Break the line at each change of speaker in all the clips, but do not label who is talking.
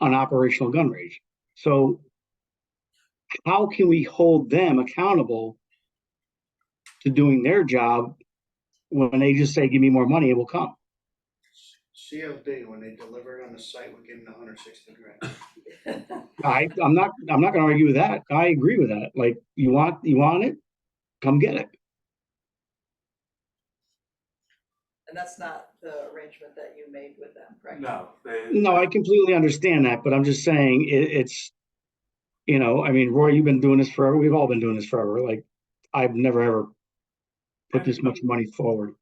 on operational gun range. So how can we hold them accountable to doing their job when they just say, give me more money, it will come?
CFD, when they deliver it on the site, we give them the hundred sixty grand.
I, I'm not, I'm not gonna argue with that. I agree with that. Like, you want, you want it? Come get it.
And that's not the arrangement that you made with them, correct?
No, they.
No, I completely understand that, but I'm just saying it, it's, you know, I mean, Roy, you've been doing this forever. We've all been doing this forever. Like, I've never ever put this much money forward.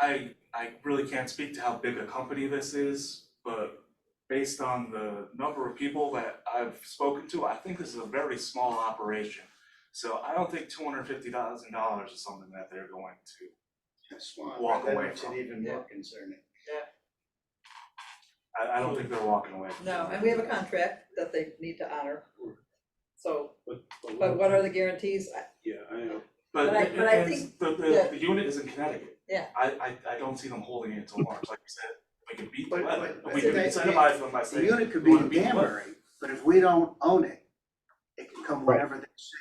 I, I really can't speak to how big a company this is, but based on the number of people that I've spoken to, I think this is a very small operation. So I don't think two hundred fifty thousand dollars is something that they're going to
That's why,
Walk
that
away
makes it
from.
even more
Yeah.
concerning.
I, I don't think they're walking away. from
No,
that.
and we have a contract that they need to honor. So,
But,
but what are the guarantees? I-
Oh, Yeah, I know.
But
But I-
it-
but I
it's-
think
the, the,
that-
the unit is in Connecticut.
Yeah.
I, I, I don't see them holding it until March, like you said, we can beat the
But-
weather,
but-
but we
but
can
they-
incentivize them by
The
saying.
unit could
"You
be
wanna
in
beat the weather."
Danbury, but if we don't own it, it can come
Right.
whenever they say.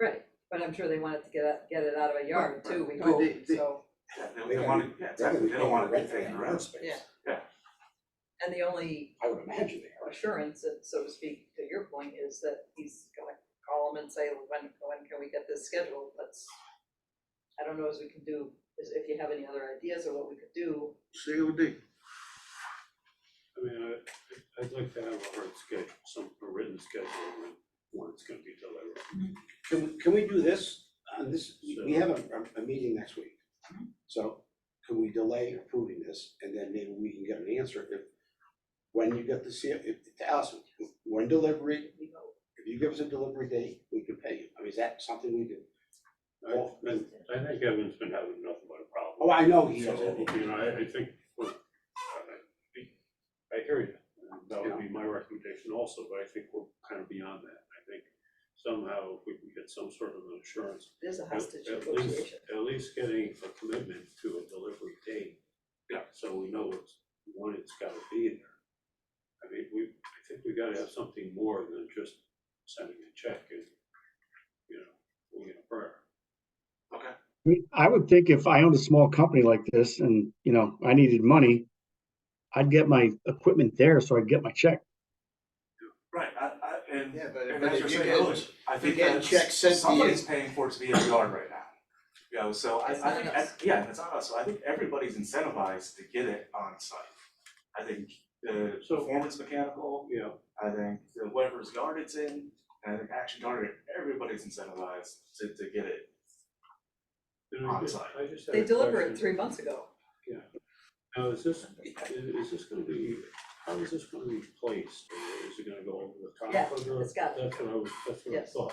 Right, but I'm sure they wanted to get, it- get it out of a yard too,
Right,
we
right.
hope,
They- they-
so.
Yeah, They, they wanna, yeah, exactly, they don't wanna dictate the rest.
Yeah. And the only
I would imagine they are.
assurance, uh, so to speak, to your point, is that he's gonna call them and say, when, when can we get this scheduled? That's, I don't know as we can do, is if you have any other ideas or what we could do.
COD.
I mean, I, I'd like to have a hard schedule, some, a written schedule when, when it's gonna be delivered.
Can, we- can we do this, on this, we have a, a- a meeting next week.
Hmm?
So can we delay approving this and then maybe we can get an answer if, when you get the C, if, to us, when delivery,
We hope.
if you give us a delivery date, we can pay you. I mean, is that something we do?
I, been- I think Evan's been having nothing but a problem.
Oh, I know he has.
So, you know, I, I think, well, I, I hear you, and that would be my recommendation also, but I think we're kind of beyond that. I think somehow if we can get some sort of an assurance
There's a
At-
hostage
at least-
negotiation.
At least getting a commitment to a delivery date.
Yeah.
So we know it's, when it's gotta be there. I mean, we, I think we gotta have something more than just sending a check and, you know, we're gonna burn.
I mean, I would think if I owned a small company like this and, you know, I needed money, I'd get my equipment there so I'd get my check.
Right, I, I, and,
Yeah, but
and
but
that's
if
your
you
saying,
get-
earlier, I think
get a
that
check sent to you-
somebody's paying for it to be in the yard right now. You know, so I,
It's
I
not
think,
us.
I- yeah, it's not us, so I think everybody's incentivized to get it on site. I think the
So-
performance mechanical,
Yeah,
I think the whatever's yard it's in, and I think action yard, everybody's incentivized to, to get it.
and I just,
Onsite.
I just had
They
a
delivered
question.
it three months ago.
Now, is this, is, is this gonna be, how is this gonna be placed, or is it gonna go over the
Yeah,
top of the?
it's got-
That's what I was, that's what I
Yes.
thought.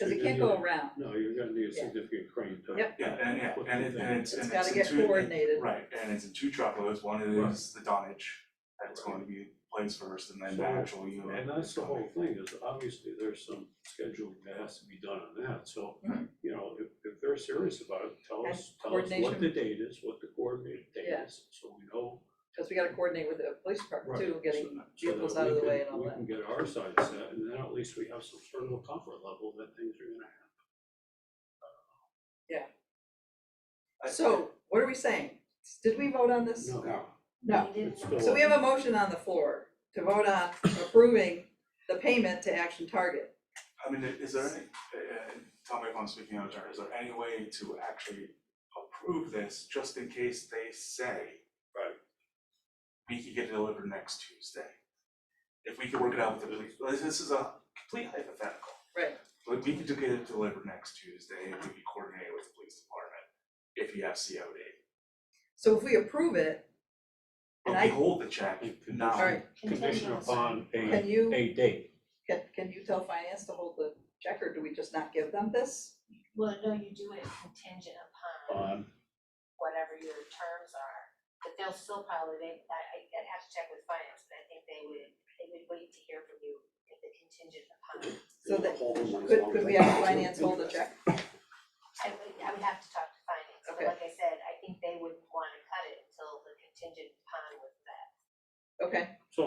Cause it
Yeah,
can't
yeah.
go around,
No, you're gonna need a
Yeah.
significant crane to.
Yep.
Yeah, and, yeah,
put
and
the
it,
thing.
and it's,
it's
and it's
gotta
in
get
two- it-
coordinated.
Right, and it's in two truckloads, one is the dunnage, that's going to be placed first, and then the
So-
actual unit.
And that's
is
the
coming.
whole thing, is obviously there's some scheduling that has to be done on that, so,
Mhm.
you know, if, if they're serious about it, tell
And
us, tell us what
coordination.
the date is, what the coordinated date
Yeah.
is, so we know.
Cause we gotta coordinate with the police department
Right,
too, getting
so- so
vehicles
that
out of
we
the way
can-
and all that.
We can get our side set, and then at least we have some sort of a comfort level that things are gonna happen.
I-
So, what are we saying? Did we vote on this?
Um,
No.
No.
No.
It's
So
still-
we have a motion on the floor to vote on approving the payment to Action Target.
I mean, is there any, uh, tell me if I'm speaking out of turn, is there any way to actually approve this just in case they say?
Right.
We could get it delivered next Tuesday. If we could work it out with the police, this- this is a complete hypothetical.
Right.
But we could do get it delivered next Tuesday and we could coordinate with the police department if you have COD.
So if we approve it, And
But we
I-
hold the check
all
now,
right,
Condition upon
can
a,
you,
a date.
can, can you tell finance to hold the check or do we just not give them this?
Well, no, you do it contingent upon
on
whatever your terms are, but they'll still probably, they, I, I- I'd have to check with finance, but I think they would, they would wait to hear from you if the contingent upon.
So that,
Hold them on as
could,
long as
could
they
we have
want to.
finance hold the check?
I would, I would have to talk to finance, but
Okay.
like I said, I think they wouldn't wanna cut it until the contingent upon was met.
Okay.
So